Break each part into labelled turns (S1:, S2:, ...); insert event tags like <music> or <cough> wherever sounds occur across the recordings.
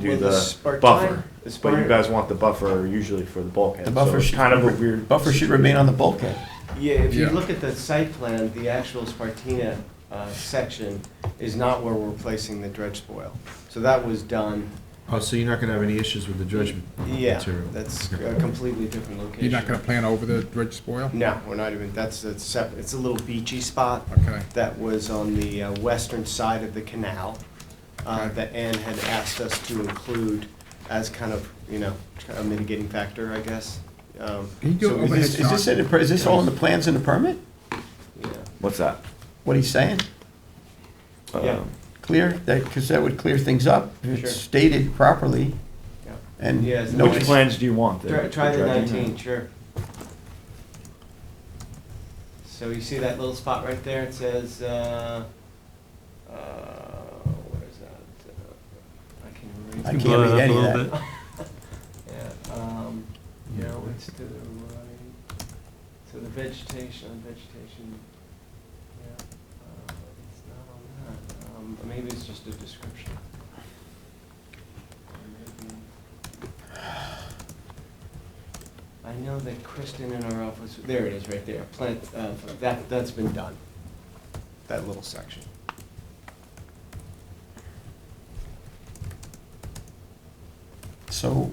S1: do
S2: Will
S1: the
S2: this spark
S1: buffer.
S2: time?
S1: It's- But you
S2: Right.
S1: guys want the buffer usually for the bulkhead.
S3: The buffer
S1: so it's
S3: should-
S1: Kind of a weird.
S3: Buffer should remain on the bulkhead.
S2: Yeah, if you
S4: Yeah.
S2: look at the site plan, the actual Spartina uh, section is not where we're placing the dredge spoil. So that was done,
S5: Oh, so you're not gonna have any issues with the dredge
S2: yeah,
S5: material?
S2: that's
S5: Okay.
S2: a completely different location.
S4: You're not gonna plan over the dredge spoil?
S2: No, we're not even, that's, a separate, it's a little beachy spot.
S4: Okay.
S2: that was on the uh, western side of the canal uh,
S4: Okay.
S2: that Ann had asked us to include as kind of, you know, a mitigating factor, I guess. Um,
S4: Can you do
S3: So
S4: an
S3: is
S4: overhead
S3: this, is this,
S4: shot?
S3: in the- is this all in the plans and the permit?
S2: yeah.
S1: What's that?
S3: What he's saying?
S2: Yeah.
S1: Um,
S3: Clear, that, because that would clear things up. if
S2: Sure.
S3: It's stated properly
S2: yeah.
S3: and
S2: Yes,
S3: no.
S1: Which plans do you want?
S2: Try- Try the
S1: dredging?
S2: 19, sure. So you see that little spot right there? It says, uh, uh, where is that? Uh, I can't remember.
S3: I can't read any of that.
S2: <laughs> Yeah, um, no, it's to the right, so the vegetation, vegetation, yeah, uh, it's not on that, um, maybe it's just a description. Or maybe- I know that Kristen in our office, there it is, right there, plant, uh, that, that's been done, that little section.
S3: So,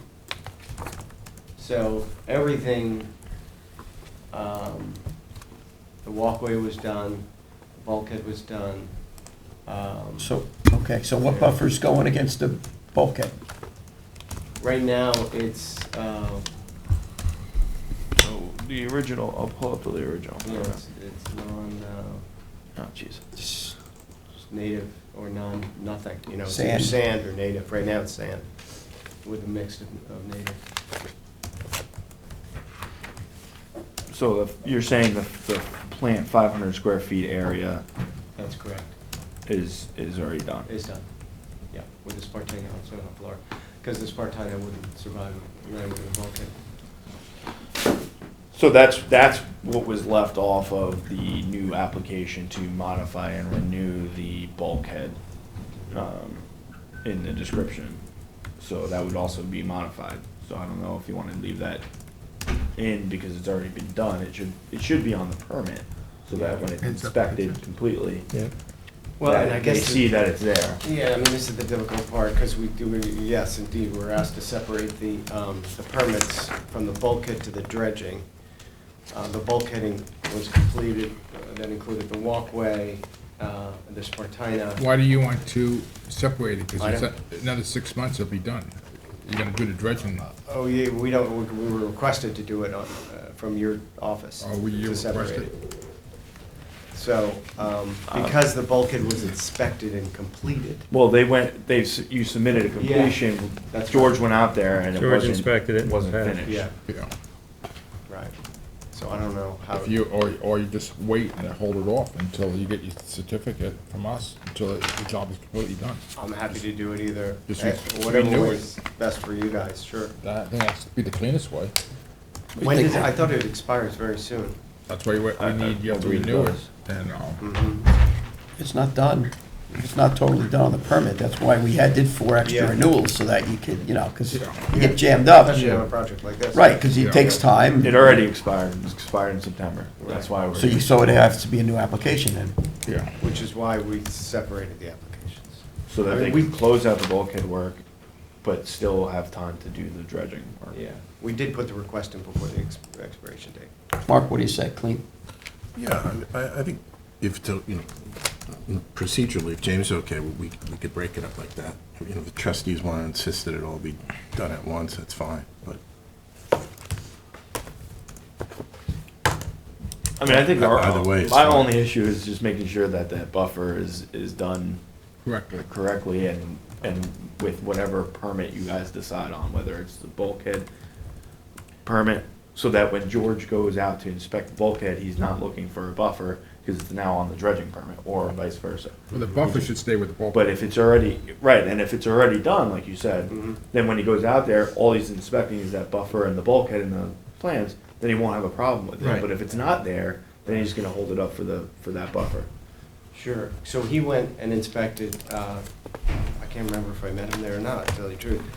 S2: So everything, um, the walkway was done, the bulkhead was done. um,
S3: so, okay, so what buffer's going against the bulkhead?
S2: Right now, it's, uh,
S1: So Oh, The original, I'll pull up the original.
S2: you know, it's, it's non, uh,
S1: Oh, jeez.
S3: Just
S2: native or non, nothing, you know, it's either
S3: Sand.
S2: sand or native, right now it's sand with a mix of, of native.
S1: So if you're saying the, the plant five hundred square feet area
S2: That's correct.
S1: is, is already done?
S2: It's done, yeah, with the Spartina also on the floor, because the Spartina wouldn't survive land with a bulkhead.
S1: So that's, that's what was left off of the new application to modify and renew the bulkhead, um, in the description. So that would also be modified, so I don't know if you wanna leave that in, because it's already been done, it should, it should be on the permit, so that when it's inspected completely,
S2: Well, and I
S1: that
S2: guess.
S1: they
S2: the-
S1: see that it's there.
S2: Yeah, I mean, this is the difficult part, because we do, yes, indeed, we're asked to separate the, um, the permits from the bulkhead to the dredging. Uh, the bulkheading was completed, uh, that included the walkway, uh, the Spartina.
S4: Why do you want to separate it?
S2: I
S4: Because another six months it'll be done. You're gonna do the dredging.
S2: Oh, yeah, we don't, we were requested to do it on, uh, from your office.
S4: Oh, were you
S2: to separate
S4: requested?
S2: it. So, um, because the bulkhead was inspected and completed,
S1: Well, they went, they, s- you submitted a completion,
S2: that's
S1: George
S2: right.
S1: went out there and it
S6: George
S1: wasn't.
S6: inspected it and
S1: Wasn't
S6: passed.
S1: finished.
S2: yeah,
S4: You know,
S2: right. So I don't know how.
S4: if you, or, or you just wait and hold it off until you get your certificate from us, until the job is completely done.
S2: I'm happy to do it either,
S4: Just
S2: eh,
S4: re-
S2: whatever
S4: renew it.
S2: works best for you guys, sure.
S4: That, I think that's be the cleanest way.
S2: When does, I thought it expires very soon.
S4: That's why we,
S1: I- I
S4: we need you to
S1: believe it
S4: renew it,
S1: does.
S4: and, um,
S2: Mm. Mm-hmm.
S3: It's not done. It's not totally done on the permit. That's why we had, did four extra
S2: Yeah.
S3: renewals, so that you could, you know, because
S4: Yeah.
S3: you get jammed up.
S2: Especially on a project like this.
S3: Right, because it takes time.
S1: It already expired, it expired in September, that's why we're.
S3: So you, so it has to be a new application then.
S4: yeah.
S2: Which is why we separated the applications.
S1: So
S2: I
S1: that
S2: mean,
S1: they
S2: we-
S1: can close out the bulkhead work, but still have time to do the dredging work.
S2: We did put the request in before the ex- expiration date.
S3: Mark, what do you say, clean?
S7: Yeah, I, I- I think if, to- you know, procedurally, if James is okay, we, we could break it up like that. You know, the trustees want to insist that it all be done at once, that's fine, but
S1: I mean, I think our,
S7: Either way, it's
S1: my
S7: fine.
S1: only issue is just making sure that that buffer is, is done
S4: Correctly.
S1: correctly and, and with whatever permit you guys decide on, whether it's the bulkhead permit, so that when George goes out to inspect the bulkhead, he's not looking for a buffer, because it's now on the dredging permit, or vice versa.
S4: Well, the buffer should stay with the bulkhead.
S1: But if it's already, right, and if it's already done, like you said, then when he goes out there, all he's inspecting is that buffer and the bulkhead and the plans, then he won't have a problem with it.
S7: Right.
S1: But if it's not there, then he's gonna hold it up for the, for that buffer.
S2: Sure. So he went and inspected, uh, I can't can't remember if I met him there or not, to tell you the truth.